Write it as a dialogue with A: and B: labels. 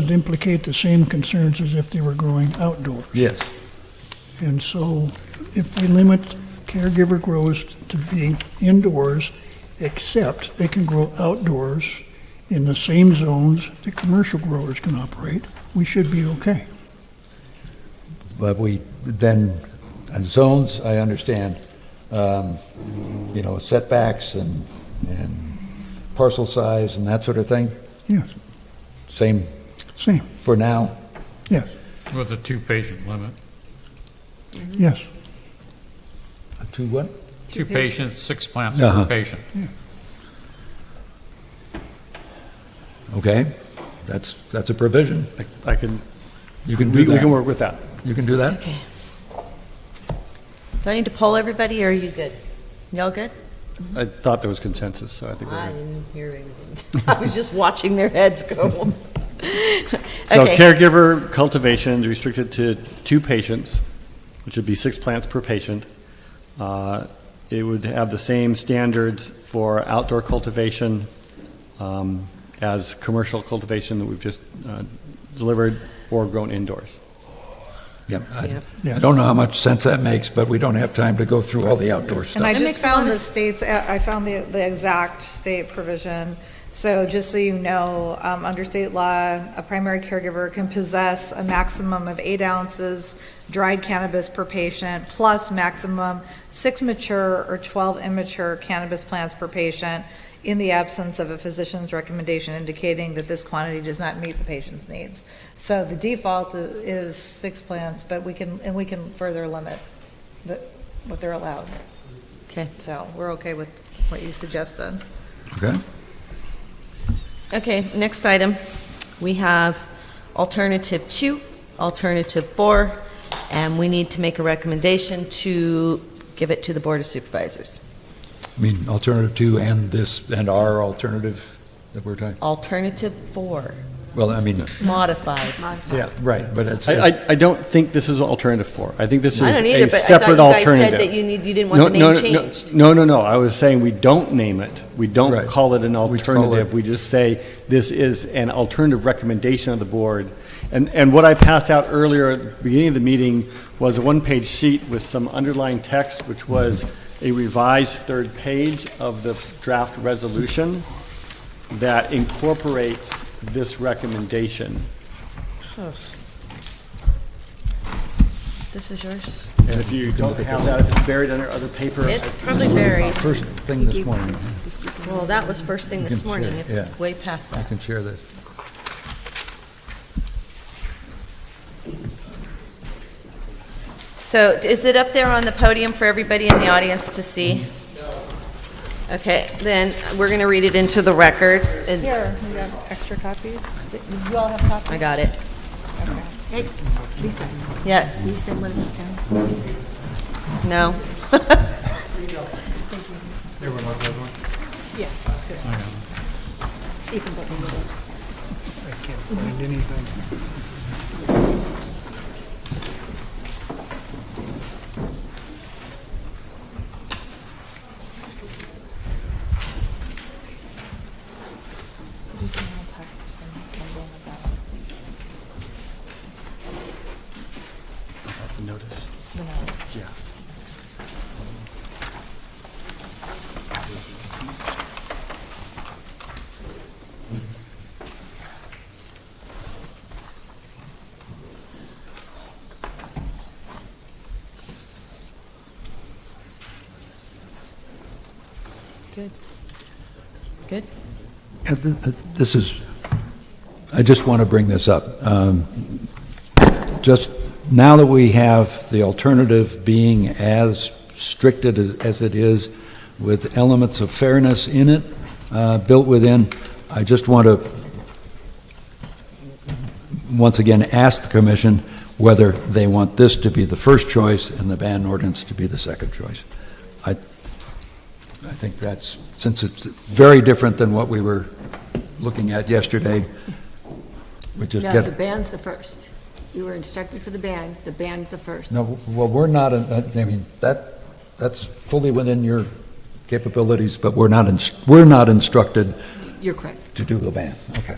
A: would implicate the same concerns as if they were growing outdoors.
B: Yes.
A: And so if we limit caregiver grows to being indoors, except they can grow outdoors in the same zones that commercial growers can operate, we should be okay.
B: But we, then, on zones, I understand, um, you know, setbacks and, and parcel size and that sort of thing,
A: Yes,
B: same
A: same,
B: for now?
A: yes,
C: With a two-patient limit.
A: yes.
B: To what?
C: Two patients, six plants
B: Uh-huh.
C: per patient.
B: Okay, that's, that's a provision.
D: I can,
B: You can do
D: we we can
B: that.
D: work with that.
B: You can do that?
E: Okay. Do I need to poll everybody, or are you good? Y'all good?
D: I thought there was consensus, so I think
E: I
D: we're good.
E: didn't hear anything. I was just watching their heads go.
D: So
E: Okay.
D: caregiver cultivation is restricted to two patients, which would be six plants per patient. Uh, It would have the same standards for outdoor cultivation um, as commercial cultivation that we've just uh, delivered or grown indoors.
B: Yep. I-
E: Yep.
B: I don't know how much sense that makes, but we don't have time to go through all the outdoor
F: And I
B: stuff.
E: makes
F: just
E: a
F: found
E: lot
F: the
E: of-
F: states, uh, I found the, the exact state provision. So just so you know, um, under state law, a primary caregiver can possess a maximum of eight ounces dried cannabis per patient, plus maximum six mature or 12 immature cannabis plants per patient in the absence of a physician's recommendation indicating that this quantity does not meet the patient's needs. So the default i- is six plants, but we can, and we can further limit the, what they're allowed.
E: Okay.
F: So we're okay with what you suggested.
B: Okay?
E: Okay, next item, we have alternative two, alternative four, and we need to make a recommendation to give it to the Board of Supervisors.
B: I mean, alternative two and this, and our alternative that we're talking,
E: Alternative four,
B: well, I mean,
E: modified.
B: yeah, right, but it's.
D: I, I- I don't think this is alternative four. I think this is
E: I don't either,
D: a
E: but I thought you
D: separate
E: guys said
D: alternative.
E: that you need, you didn't want the
D: No,
E: name
D: no, no,
E: changed.
D: No, no, no, I was saying we don't name it. We
B: Right.
D: don't call it an
B: We call it-
D: alternative. We just say this is an alternative recommendation of the board. And, and what I passed out earlier at the beginning of the meeting was a one-page sheet with some underlying text, which was a revised third page of the draft resolution that incorporates this recommendation.
E: This is yours?
D: And if you don't have that, if it's buried under other paper, I
E: It's probably buried.
B: First thing this morning,
E: Well, that was first thing
B: You
E: this
B: can
E: morning.
B: share, yeah.
E: It's way past
B: I
E: that.
B: can share this.
E: So is it up there on the podium for everybody in the audience to see?
B: Mm-hmm.
E: Okay, then we're going to read it into the record. and-
F: Here, we got extra copies. You all have copies?
E: I got it.
G: Hey, Lisa,
E: Yes,
G: you send one of these down?
E: no.
G: Ethan, but we will.
A: I can't find anything.
F: Did you send me a text from Kendall about
D: have to notice.
F: the note?
D: Yeah.
E: Good. Good?
B: And th- th- This is, I just want to bring this up. Um, Just now that we have the alternative being as stricted as- as it is with elements of fairness in it, uh, built within, I just want to, once again, ask the commission whether they want this to be the first choice and the ban ordinance to be the second choice. I, I think that's, since it's very different than what we were looking at yesterday, we just
G: No,
B: get.
G: the band's the first. We were instructed for the band, the band's the first.
B: No, well, we're not, I mean, that, that's fully within your capabilities, but we're not, inst- we're not instructed
G: You're correct.
B: to do the ban. Okay.